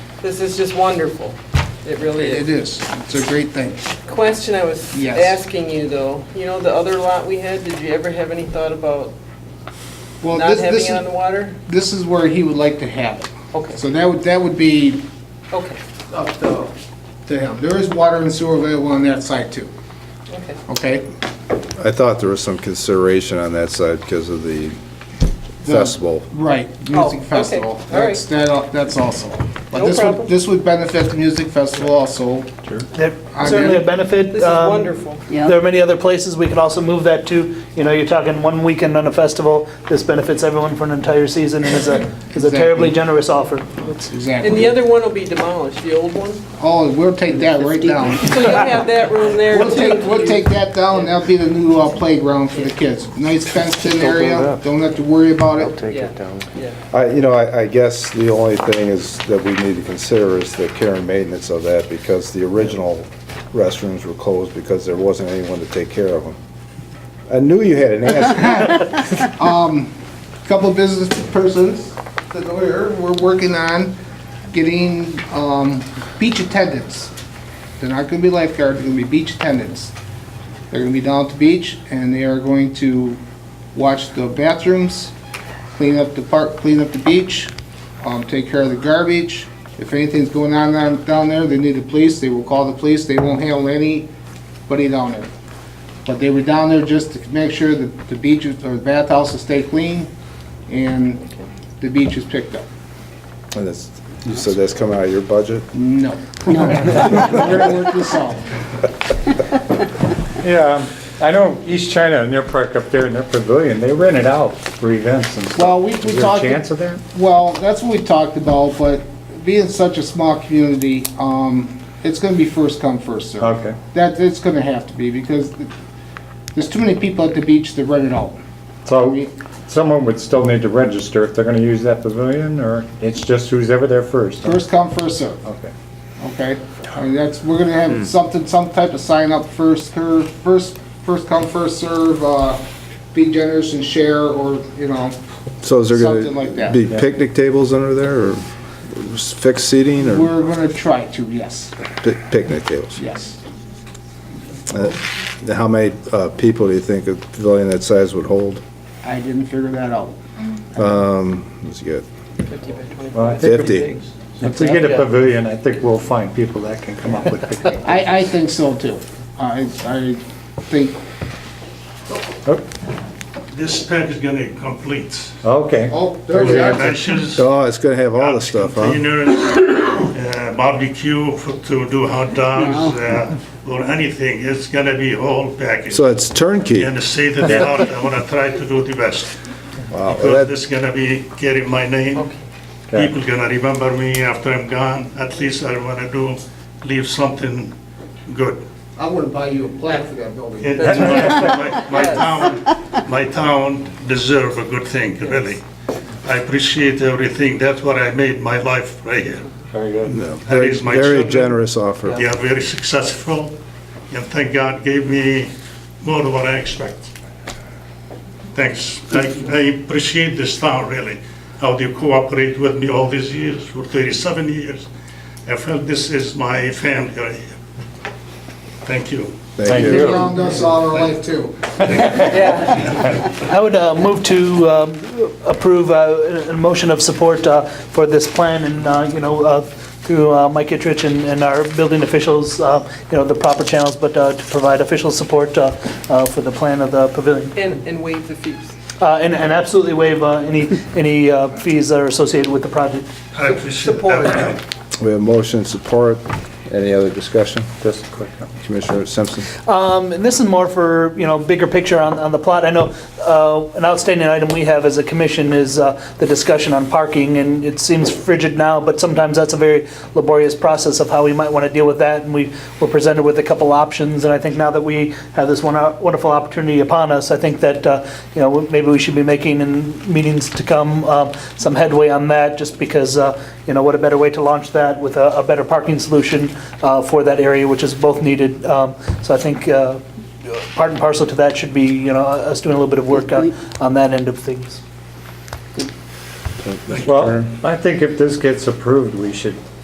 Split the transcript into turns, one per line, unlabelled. This is just wonderful. It really
It
is.
is. It's a great thing.
Question I was
Yes.
asking you though, you know, the other lot we had, did you ever have any thought about
Well,
not
this,
having
this
it on the
is,
water?
this is where he would like to have it.
Okay,
So that would, that would be
okay,
up to, to him. There is water and sewer available on that side too,
okay.
okay?
I thought there was some consideration on that side because of the
The-
festival.
Right,
Oh, okay.
music festival.
All right.
That's, that, al- that's also. But
No
this
problem.
would, this would benefit the music festival also.
That
I
certainly
mean-
a benefit.
This is
um,
wonderful.
There are many other places we could also move that to. You know, you're talking one weekend on a festival. This benefits everyone for an entire season and is a, is a terribly
Exactly.
generous offer. It's-
And the
Exactly.
other one will be demolished, the old one?
Oh, we'll take that right down.
So you'll have that room there
We'll take,
too.
we'll take that down, that'll be the new uh, playground for the kids. Nice fenced-in area, don't have to worry about it.
Take
Yeah.
it down.
Yeah.
I, you know, I, I guess the only thing is that we need to consider is the care and maintenance of that because the original restrooms were closed because there wasn't anyone to take care of them. I knew you had an answer.
Couple business persons that we're, we're working on getting um, beach attendants. They're not gonna be lifeguards, they're gonna be beach attendants. They're gonna be down at the beach, and they are going to watch the bathrooms, clean up the park, clean up the beach, um, take care of the garbage. If anything's going on down- down there, they need the police, they will call the police, they won't handle anybody down there. But they were down there just to make sure that the beaches or the bathhouses stay clean and the beach is picked up.
And it's- You said that's coming out of your budget?
No. We're gonna work this out.
Yeah, I know East China and their park up there in their pavilion, they rent it out for events and stuff.
Well, we, we
Is there a
talked.
chance of that?
Well, that's what we talked about, but being such a small community, um, it's gonna be first come, first served.
Okay.
That, it's gonna have to be because there's too many people at the beach that run it out.
So someone would still need to register if they're gonna use that pavilion, or it's just who's ever there first? huh?
First come, first served.
Okay.
Okay, I mean, that's, we're gonna have something, some type of sign up first, cur- first, first come, first serve, uh, be generous and share, or, you know,
So is there
Something like
gonna
that.
be picnic tables under there or fixed seating or
we're gonna try to, yes,
pi- picnic tables?
yes.
Uh, How many uh, people do you think a pavilion that size would hold?
I didn't figure that out.
That's good.
Well, I think
Fifty.
If we get a pavilion, I think we'll find people that can come up with picnic.
I, I think so too. I, I think,
This pack is gonna be complete.
Okay.
oh, there we are.
Dishes,
Oh, it's gonna have all the stuff, huh?
containers, uh, barbecue for- to do hot dogs, uh, or anything, it's gonna be whole package.
So it's turnkey.
And the state of the art, I wanna try to do the best.
Wow,
Because
that-
this gonna be carrying my name,
Okay.
people gonna remember me after I'm gone, at least I wanna do, leave something good.
I wouldn't buy you a plaque for that building.
It- My my town, my town deserve a good thing, really. I appreciate everything, that's what I made my life right here.
Very good.
no,
I
Very
raised my
very
children.
generous offer.
They are very successful, and thank God gave me more than what I expect. Thanks, I I appreciate this town, really, how they cooperate with me all these years, for 37 years. I felt this is my family right here. Thank you.
Thank you.
They wronged us all our life too.
I would uh, move to um, approve uh, a a motion of support uh, for this plan and, uh, you know, uh, through uh, Mike Kittredge and and our building officials, uh, you know, the proper channels, but uh, to provide official support uh, uh, for the plan of the pavilion.
And, and waive the fees.
Uh, And and absolutely waive uh, any any uh, fees that are associated with the project.
I appreciate
Support.
that.
We have motion, support. Any other discussion? Just quick. Commissioner Simpson?
Um, And this is more for, you know, bigger picture on, on the plot. I know uh, an outstanding item we have as a commission is uh, the discussion on parking, and it seems frigid now, but sometimes that's a very laborious process of how we might want to deal with that, and we were presented with a couple options, and I think now that we have this one- uh, wonderful opportunity upon us, I think that, uh, you know, maybe we should be making in meetings to come um, some headway on that, just because, uh, you know, what a better way to launch that with a a better parking solution uh, for that area, which is both needed. Um, So I think uh, part and parcel to that should be, you know, us doing a little bit of work on on that end of things.
Well, I think if this gets approved, we should